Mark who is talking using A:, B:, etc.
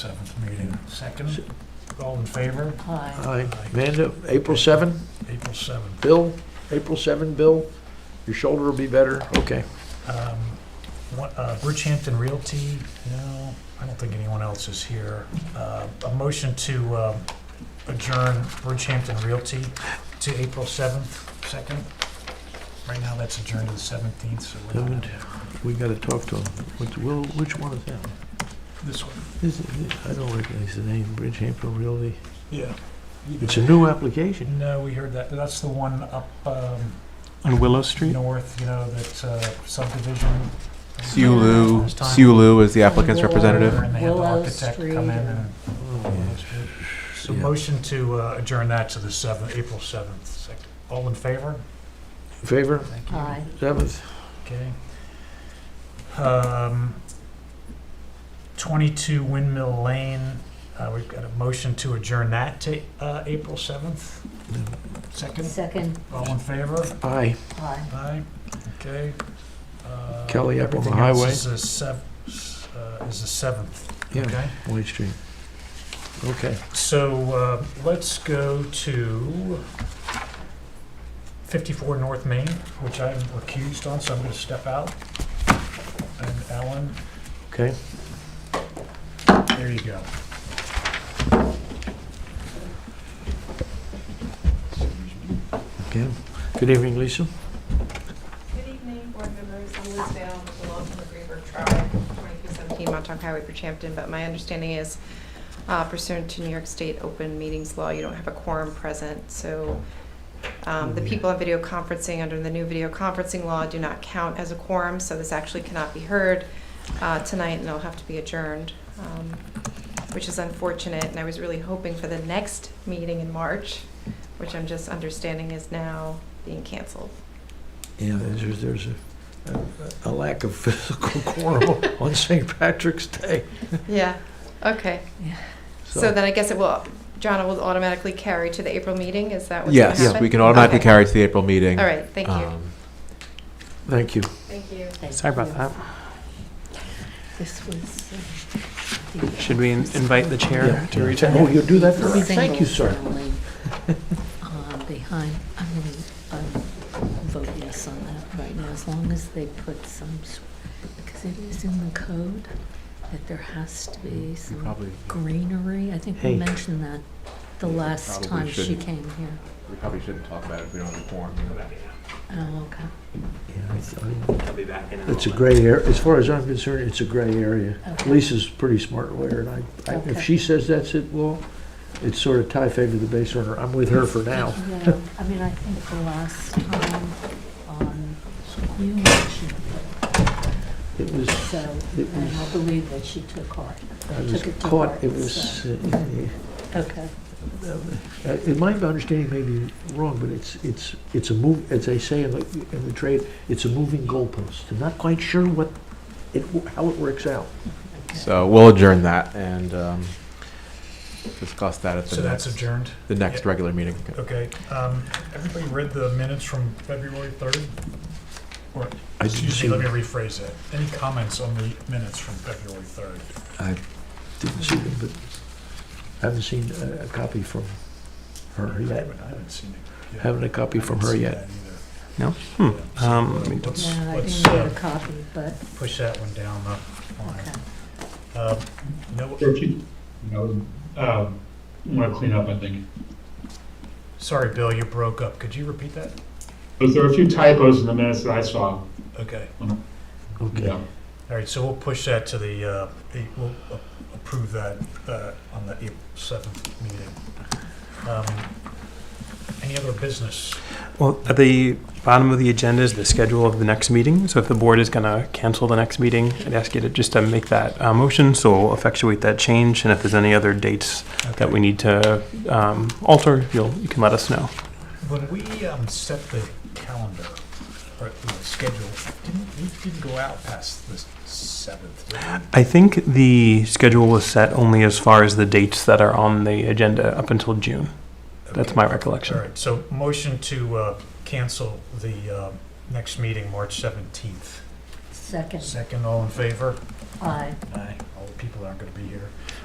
A: meeting. Second, all in favor?
B: Aye.
C: Aye. Amanda, April 7,
A: April 7th.
C: Bill, April 7, Bill, your shoulder will be better, okay.
A: Um, what- uh, Bridgehampton Realty, no, I don't think anyone else is here. Uh, A motion to uh, adjourn Bridgehampton Realty to April 7th, 2nd. Right now, that's adjourned to the 17th, so we're not-
C: We gotta talk to him. Which, Will, which one is that?
A: this one.
C: This is- I don't recognize the name, Bridgehampton Realty.
A: Yeah.
C: It's a new application.
A: No, uh, we heard that. That's the one up um,
D: On Willow Street?
A: north, you know, that uh, subdivision.
D: Siulu,
A: Last time.
D: Siulu is the applicant's representative.
A: And they had the
B: Willow
A: architect come in
B: Street
A: and-
C: Oh.
A: So
C: Yeah.
A: motion to uh, adjourn that to the 7th, April 7th. Second. All in favor?
C: Favor,
A: Thank you.
B: Aye.
C: 7th,
A: Okay. Um, 22 Windmill Lane, uh, we've got a motion to adjourn that to uh, April 7th. Second,
B: Second,
A: all in favor?
C: aye.
B: aye.
A: Aye, okay. Uh,
C: Kelly up on the
A: everything else
C: highway.
A: Is the sev- s- uh, is the 7th,
C: Yeah.
A: okay?
C: White Street. Okay.
A: So uh, let's go to 54 North Main, which I'm recused on, so I'm going to step out. And Alan,
C: Okay.
A: there you go.
C: Okay. Good evening, Lisa.
E: Good evening, board members. I'm Liz Bell, belong to the Greenberg Tribe, 2217 Montauk Highway, Bridgehampton. But my understanding is uh, pursuant to New York State open meetings law, you don't have a quorum present. So um, the people on video conferencing under the new video conferencing law do not count as a quorum. So this actually cannot be heard uh, tonight and it'll have to be adjourned, um, which is unfortunate. And I was really hoping for the next meeting in March, which I'm just understanding is now being canceled.
C: Yeah, there's, there's a, a- a lack of physical quorum on St. Patrick's Day.
E: Yeah, okay. So then I guess it will, John, it will automatically carry to the April meeting, is that what's going to happen?
D: Yes, we can automatically
E: Okay.
D: carry it to the April meeting.
E: All right, thank you.
D: Um,
C: Thank you.
E: Thank you.
B: Thank
D: Sorry about
B: you.
D: that.
B: This was. uh,
D: Should we in- invite the chair to reach
C: Oh,
D: out?
C: you'll do that for me? Thank you, sir.
B: uh, Behind, I'm going to vote yes on that right now, as long as they put some, s- because it is in the code that there has to be some
D: Probably,
B: greenery. I think we
C: Mm-hmm. Hey.
B: mentioned that the last
D: probably
B: time she
D: shouldn't.
B: came here.
D: we probably shouldn't talk about it if we don't have a quorum.
B: Oh, okay,
C: Yeah, I- I mean, It's a gray area, as far as I'm concerned, it's a gray area.
B: Okay.
C: Lisa's a pretty smart lawyer, and I, I- if
B: Okay.
C: she says that's it, well, it's sort of tie favor the base runner. I'm with her for now.
B: Yeah, I mean, I think the last time, um, you mentioned it,
C: It was,
B: so,
C: It
B: and I believe that she took heart.
C: I was
B: Took it to
C: caught,
B: heart,
C: it was, uh,
B: Okay,
C: uh, in my understanding may be wrong, but it's, it's, it's a move, as they say in the, in the trade, it's a moving goalpost. I'm not quite sure what, it, how it works out.
D: So we'll adjourn that and um, discuss that at
A: So
D: the
A: that's
D: next,
A: adjourned,
D: the next
A: Yeah.
D: regular meeting.
A: okay. um, Everybody read the minutes from February 3rd? Or,
C: I didn't
A: excuse
C: see
A: me, let me
C: them.
A: rephrase that. Any comments on the minutes from February 3rd?
C: Didn't see them, but I haven't seen a, a copy from her
A: I
C: yet.
A: haven't- I haven't seen it. yet.
C: Haven't a copy from her yet.
D: No?
A: Yeah,
D: Hmm.
A: so,
D: Um,
A: uh,
D: let me-
A: let's-
B: no, I
A: let's,
B: didn't get
A: uh,
B: a copy, but,
A: push that one down the line.
B: okay.
A: Um, No,
F: Don't you, you know, um, want to clean up, I think.
A: sorry, Bill, you broke up. Could you repeat that?
F: But there are a few typos in the minutes that I saw.
A: Okay.
C: Okay.
F: Yeah.
A: All right, so we'll push that to the, uh, the- we'll a- approve that uh, on the April 7th meeting. Um, Any other business?
G: Well, at the bottom of the agenda is the schedule of the next meeting, so if the board is going to cancel the next meeting, I'd ask you to just to make that uh, motion, so we'll effectuate that change, and if there's any other dates that we need to um, alter, you'll, you can let us know.
A: When we um, set the calendar, or the schedule, didn't, we didn't go out past the 7th, did we?
G: I think the schedule was set only as far as the dates that are on the agenda up until June. That's
A: Okay.
G: my
A: All
G: recollection.
A: right, so motion to uh, cancel the uh, next meeting, March 17th.
B: Second,
A: Second, all in favor?
B: aye.
A: Aye. All the people that aren't going to be here.